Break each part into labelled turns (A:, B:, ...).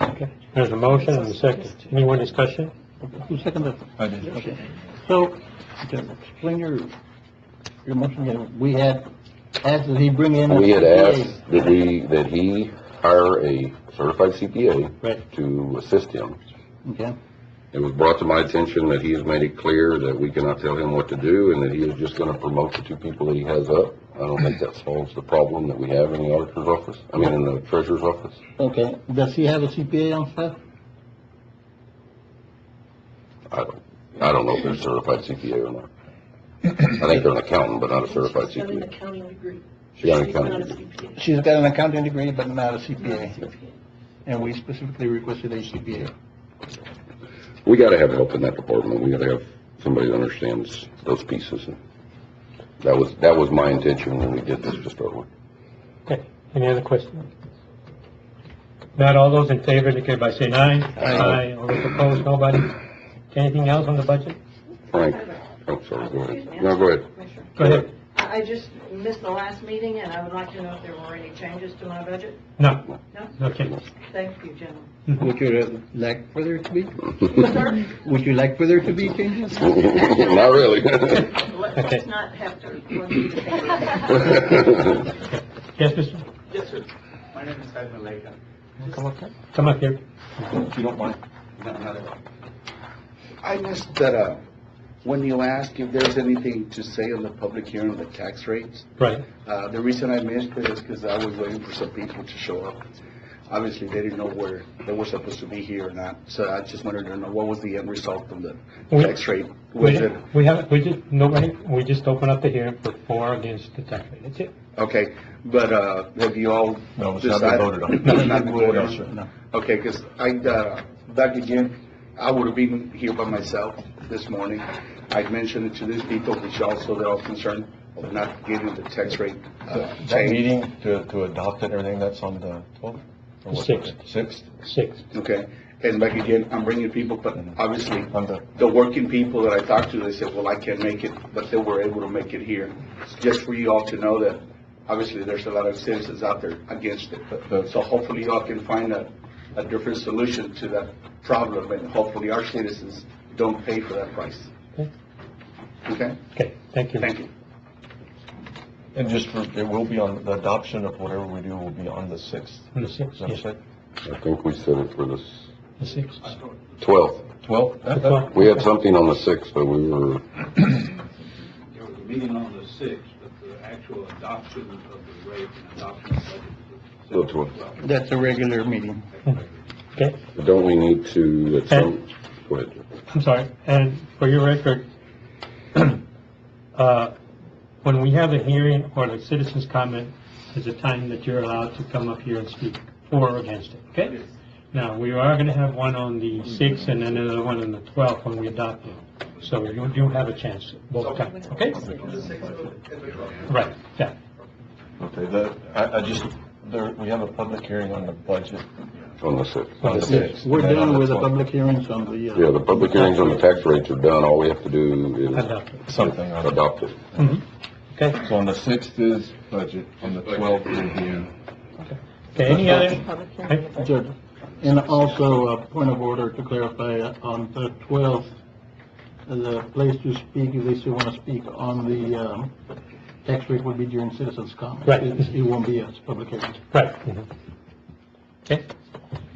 A: Okay.
B: There's a motion and a second. Any more discussion?
A: Who seconded?
C: I did.
A: Okay. So, okay, explain your, your motion again. We had, asked that he bring in. a
D: We had
A: CPA.
D: asked that he, that he hire a certified CPA
A: Right,
D: to assist him.
A: okay,
D: It was brought to my attention that he has made it clear that we cannot tell him what to do and that he is just gonna promote the two people that he has up. I don't think that solves the problem that we have in the auditor's office, I mean, in the treasurer's office.
A: okay. Does he have a CPA on staff?
D: I don't, I don't know if they're certified CPA or not. I think they're an accountant, but not a certified
E: She's got an
D: CPA.
E: accounting degree.
D: She's got an
E: She's
D: accounting
E: not a
D: degree.
E: CPA.
A: She's got an accounting degree, but not a
E: Not a
A: CPA,
E: CPA.
A: and we specifically requested a CPA.
D: We gotta have help in that department. We gotta have somebody that understands those pieces. That was, that was my intention when we did this to start with.
B: Okay, any other questions? Not all those in favor, indicate by saying aye.
D: Aye.
B: All those opposed, nobody? Anything else on the budget?
D: Frank, oh, sorry, go ahead. No, go ahead.
E: Commissioner,
B: Go ahead.
E: I I just missed the last meeting, and I would like to know if there were any changes to my budget.
B: No,
E: No?
B: no changes.
E: Thank you, gentlemen.
A: Would you like for there to be,
E: Sir,
A: would you like for there to be changes?
D: Not really.
E: let-
B: Okay.
E: Let's not have to run through the paper.
B: Yes, Mr.?
F: Yes, sir. My name is Ed Maleka.
A: Come on, come.
B: Come up here.
C: If you don't mind.
F: No, not at all. I missed that, uh, when you asked if there's anything to say on the public hearing on the tax rates,
B: Right.
F: uh, the reason I missed it is because I was waiting for some people to show up. Obviously, they didn't know where they were supposed to be here or not, so I just wanted to know what was the end result of the
B: We-
F: tax rate? Was
B: We
F: it,
B: we haven't, we just, nobody, we just open up the hearing for for or against the tax rate. That's it.
F: okay, but, uh, have you all decided?
C: No, it's not been voted on.
F: No, it's not been voted
C: No,
F: on?
C: sir.
A: No.
F: Okay, because I, uh, back again, I would have been here by myself this morning. I mentioned it to these people, which also they're all concerned of not getting the tax rate uh,
C: That
F: changed.
C: meeting to, to adopt it and everything, that's on the twelfth?
B: Sixth.
C: Sixth,
B: Six.
F: Okay, and back again, I'm bringing people, but obviously,
C: on the,
F: the working people that I talked to, they said, well, I can't make it, but they were able to make it here. Just for you all to know that, obviously, there's a lot of citizens out there against it. So hopefully y'all can find a, a different solution to that problem, and hopefully our citizens don't pay for that price.
B: Okay.
F: Okay?
B: Okay, thank you.
F: Thank you.
C: and just for, it will be on, the adoption of whatever we do will be on the sixth.
B: On the sixth,
C: Is that
B: yes.
C: right?
D: I think we set it for the
B: The Six.
D: twelfth.
C: Twelfth?
B: The
C: That- that-
B: twelfth.
D: We had something on the sixth, but we were,
G: There was a meeting on the sixth, but the actual adoption of the rate and adoption of the budget.
D: Go to it.
A: That's a regular meeting.
B: Okay,
D: don't we need to, at some, go ahead.
B: I'm sorry. And for your record, uh, when we have a hearing or the citizens comment, is a time that you're allowed to come up here and speak for or against it, okay? Now, we are going to have one on the 6th and then another one on the 12th when we adopt it. So you do have a chance both times, okay? Right, yeah.
C: Okay, the, I, I just, there, we have a public hearing on the budget.
D: on the sixth.
C: On the
A: Yes,
C: sixth.
A: we're
C: and then on
A: done
C: the
A: with the
C: 12th.
A: public hearings on the, uh.
D: Yeah, the public hearings on the tax rates are done. All we have to do is
B: Adopt it.
C: Something on it.
D: adopt it.
B: Mhm. Okay,
C: So on the sixth is budget, on the twelfth will be,
B: okay, any other?
E: Public hearing.
B: okay.
A: Judge, and also a point of order to clarify, uh, on the 12th, the place to speak, if they still want to speak on the um, tax rate would be during citizens' comments.
B: Right.
A: It it won't be a public hearing.
B: Right. mhm. Okay.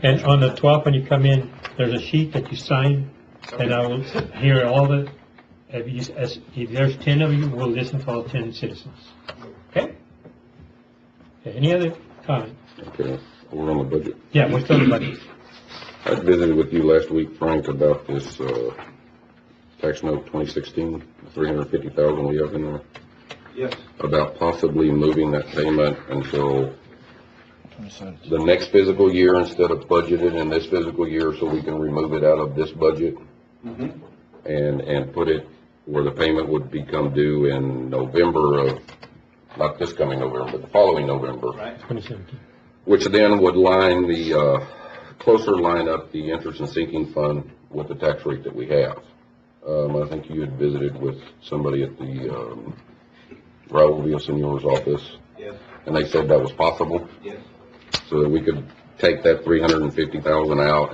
B: And on the 12th, when you come in, there's a sheet that you sign, and I will hear all the, if you- as- if there's 10 of you, we'll listen to all 10 citizens. Okay? Okay, Any other comment?
D: Okay, we're on the budget.
B: Yeah, we're still in budget.
D: I visited with you last week, Frank, about this, uh, tax note 2016, 350,000 we have in there,
G: Yes,
D: about possibly moving that payment until
C: twenty-seventh.
D: the next fiscal year instead of budgeted in this fiscal year, so we can remove it out of this budget and, and put it where the payment would become due in November of, not this coming November, but the following November.
G: right.
B: 2017.
D: Which then would line the, uh, closer line up the interest and sinking fund with the tax rate that we have. Um, I think you had visited with somebody at the, um, Raul Villasenor's office,
G: Yes,
D: and they said that was possible,
G: yes.
D: so that we could take that three hundred and fifty thousand out